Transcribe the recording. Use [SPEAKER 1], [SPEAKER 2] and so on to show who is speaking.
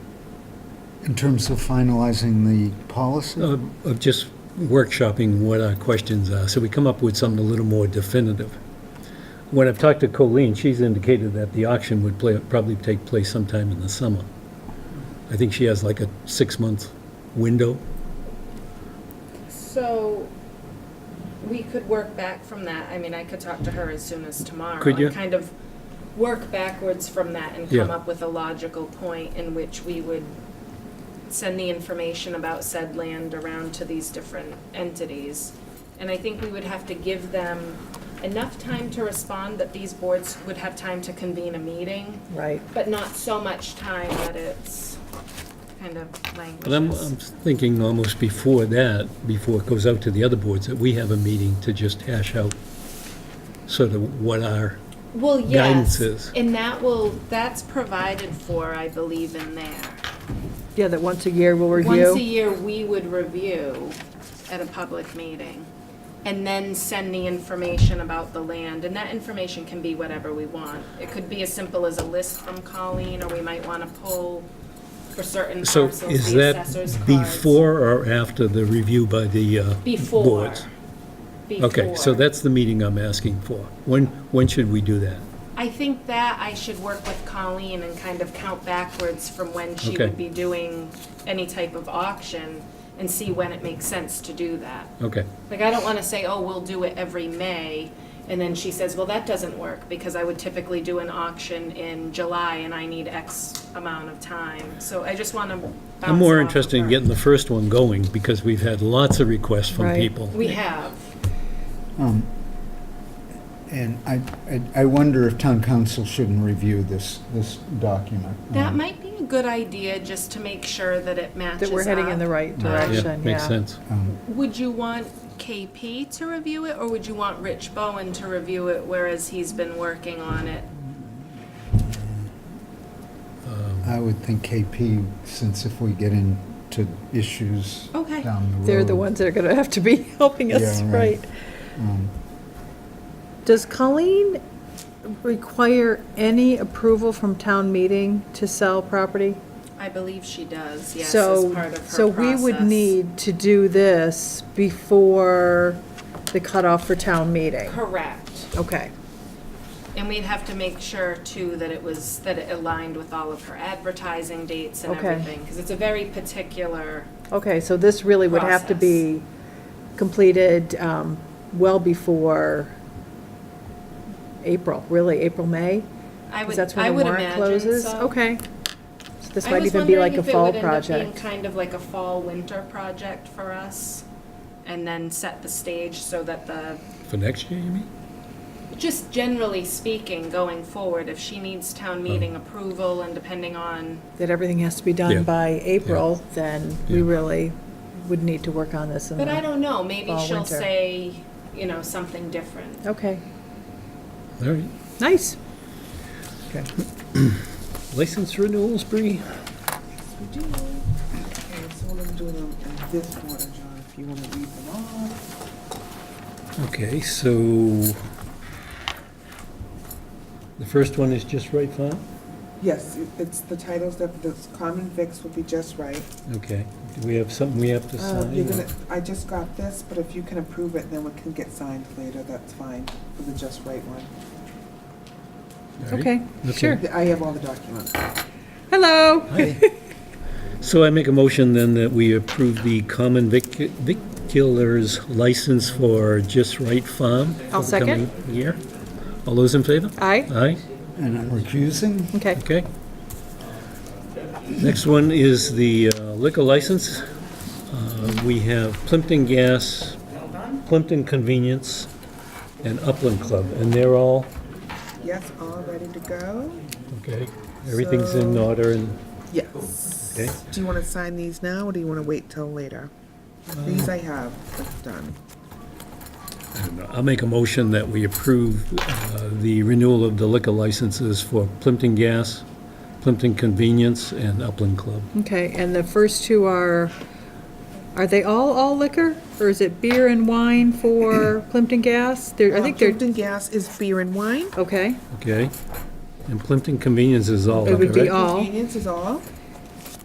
[SPEAKER 1] in terms of finalizing the policy?
[SPEAKER 2] uh, of just workshopping what our questions are, so we come up with something a little more definitive. When I've talked to Colleen, she's indicated that the auction would play, probably take place sometime in the summer. I think she has like a six-month window.
[SPEAKER 3] So we could work back from that. I mean, I could talk to her as soon as tomorrow.
[SPEAKER 2] Could you?
[SPEAKER 3] and Kind of work backwards from that and come
[SPEAKER 2] Yeah.
[SPEAKER 3] up with a logical point in which we would send the information about said land around to these different entities. And I think we would have to give them enough time to respond that these boards would have time to convene a meeting,
[SPEAKER 4] Right.
[SPEAKER 3] but not so much time that it's kind of languishes.
[SPEAKER 2] But I'm, I'm thinking almost before that, before it goes out to the other boards, that we have a meeting to just hash out sort of what our,
[SPEAKER 3] Well, yes,
[SPEAKER 2] guidances.
[SPEAKER 3] and that will, that's provided for, I believe, in there.
[SPEAKER 4] Yeah, that once a year we'll
[SPEAKER 3] Once a
[SPEAKER 4] review.
[SPEAKER 3] year, we would review at a public meeting, and then send the information about the land, and that information can be whatever we want. It could be as simple as a list from Colleen, or we might want to pull for certain
[SPEAKER 2] so
[SPEAKER 3] parcels,
[SPEAKER 2] is
[SPEAKER 3] the
[SPEAKER 2] that
[SPEAKER 3] assessor's cards.
[SPEAKER 2] before or after the review by the uh,
[SPEAKER 3] Before.
[SPEAKER 2] boards? Okay, so
[SPEAKER 3] Before.
[SPEAKER 2] that's the meeting I'm asking for. When, when should we do that?
[SPEAKER 3] I think that I should work with Colleen and kind of count backwards from when she
[SPEAKER 2] Okay.
[SPEAKER 3] would be doing any type of auction and see when it makes sense to do that.
[SPEAKER 2] Okay,
[SPEAKER 3] Like, I don't want to say, oh, we'll do it every May, and then she says, well, that doesn't work because I would typically do an auction in July and I need X amount of time. So I just want to.
[SPEAKER 2] I'm more interested in getting the first one going because we've had lots of requests from
[SPEAKER 4] Right.
[SPEAKER 2] people.
[SPEAKER 3] We have.
[SPEAKER 1] And I, I- I wonder if town council shouldn't review this, this document.
[SPEAKER 3] That
[SPEAKER 1] Um,
[SPEAKER 3] might be a good idea just to make sure that it matches
[SPEAKER 4] That we're heading in the
[SPEAKER 3] up.
[SPEAKER 4] right
[SPEAKER 2] Yeah,
[SPEAKER 4] direction,
[SPEAKER 2] Makes
[SPEAKER 4] yeah.
[SPEAKER 2] sense.
[SPEAKER 1] um,
[SPEAKER 3] Would you want KP to review it, or would you want Rich Bowen to review it, whereas he's been working on it?
[SPEAKER 2] Um,
[SPEAKER 1] I would think KP, since if we get into issues
[SPEAKER 3] Okay.
[SPEAKER 1] down the road.
[SPEAKER 4] They're the ones that are going to have to be helping us,
[SPEAKER 1] Yeah, right. Mm.
[SPEAKER 4] right? Does Colleen require any approval from town meeting to sell property?
[SPEAKER 3] I believe she does, yes, as
[SPEAKER 4] So,
[SPEAKER 3] part of her process.
[SPEAKER 4] so we would need to do this before the cutoff for town meeting.
[SPEAKER 3] Correct.
[SPEAKER 4] Okay,
[SPEAKER 3] And we'd have to make sure, too, that it was, that it aligned with all of her advertising dates and
[SPEAKER 4] Okay.
[SPEAKER 3] everything, because it's a very particular,
[SPEAKER 4] okay, so this really would have to
[SPEAKER 3] Process.
[SPEAKER 4] be completed um, well before April, really, April, May?
[SPEAKER 3] I
[SPEAKER 4] Because
[SPEAKER 3] would,
[SPEAKER 4] that's when
[SPEAKER 3] I
[SPEAKER 4] the
[SPEAKER 3] would
[SPEAKER 4] warrant
[SPEAKER 3] imagine,
[SPEAKER 4] closes?
[SPEAKER 3] so.
[SPEAKER 4] Okay. So this
[SPEAKER 3] I
[SPEAKER 4] might
[SPEAKER 3] was
[SPEAKER 4] even be
[SPEAKER 3] wondering
[SPEAKER 4] like a
[SPEAKER 3] if it
[SPEAKER 4] fall
[SPEAKER 3] would end up being
[SPEAKER 4] project.
[SPEAKER 3] Kind of like a fall-winter project for us, and then set the stage so that the
[SPEAKER 2] For next year, you mean?
[SPEAKER 3] Just generally speaking, going forward, if she needs town meeting approval and depending on,
[SPEAKER 4] That everything has to be
[SPEAKER 2] Yeah.
[SPEAKER 4] done by April, then we
[SPEAKER 2] Yeah.
[SPEAKER 4] really would need to work on this in
[SPEAKER 3] but I
[SPEAKER 4] the-
[SPEAKER 3] don't know, maybe
[SPEAKER 4] Mm-hmm. Fall,
[SPEAKER 3] she'll
[SPEAKER 4] winter.
[SPEAKER 3] say, you know, something different.
[SPEAKER 4] Okay,
[SPEAKER 2] All right.
[SPEAKER 4] nice.
[SPEAKER 2] License renewals, Bree?
[SPEAKER 5] Okay, so we're gonna do them in this order, John, if you wanna read them off.
[SPEAKER 2] Okay, so the first one is just right font?
[SPEAKER 5] Yes, it- it's the titles that, the common fix will be just right.
[SPEAKER 2] Okay. Do we have something we have to
[SPEAKER 5] Uh, You're
[SPEAKER 2] sign?
[SPEAKER 5] gonna, I just got this, but if you can approve it, then we can get signed later, that's fine, for the just right one.
[SPEAKER 2] All right.
[SPEAKER 4] Okay,
[SPEAKER 2] Okay.
[SPEAKER 4] sure.
[SPEAKER 5] I have all the documents.
[SPEAKER 4] Hello.
[SPEAKER 2] Hi. So I make a motion then that we approve the common vic- viculars license for Just Right Farm. for
[SPEAKER 4] I'll
[SPEAKER 2] the
[SPEAKER 4] second.
[SPEAKER 2] coming Year. All those in favor?
[SPEAKER 4] Aye,
[SPEAKER 2] Aye,
[SPEAKER 1] And I'm recusing?
[SPEAKER 4] okay.
[SPEAKER 2] okay. Next one is the uh, liquor license. Uh, We have Plimpton Gas, Plimpton Convenience, and Upland Club, and they're all,
[SPEAKER 5] Yes, all ready to go?
[SPEAKER 2] okay, everything's in order and,
[SPEAKER 5] Yes.
[SPEAKER 2] Okay.
[SPEAKER 5] Do you wanna sign these now, or do you wanna wait till later?
[SPEAKER 2] Uh,
[SPEAKER 5] These I have, it's done.
[SPEAKER 2] I don't know. I'll make a motion that we approve uh, the renewal of the liquor licenses for Plimpton Gas, Plimpton Convenience, and Upland Club.
[SPEAKER 4] Okay, and the first two are, are they all, all liquor? Or is it beer and wine for Plimpton Gas? There, I think they're,
[SPEAKER 5] Hampton Gas is beer and wine.
[SPEAKER 4] okay,
[SPEAKER 2] Okay? And Plimpton Convenience is all
[SPEAKER 4] It
[SPEAKER 2] of
[SPEAKER 4] would
[SPEAKER 2] it,
[SPEAKER 4] be
[SPEAKER 2] right?
[SPEAKER 4] all.
[SPEAKER 5] Convenience is all.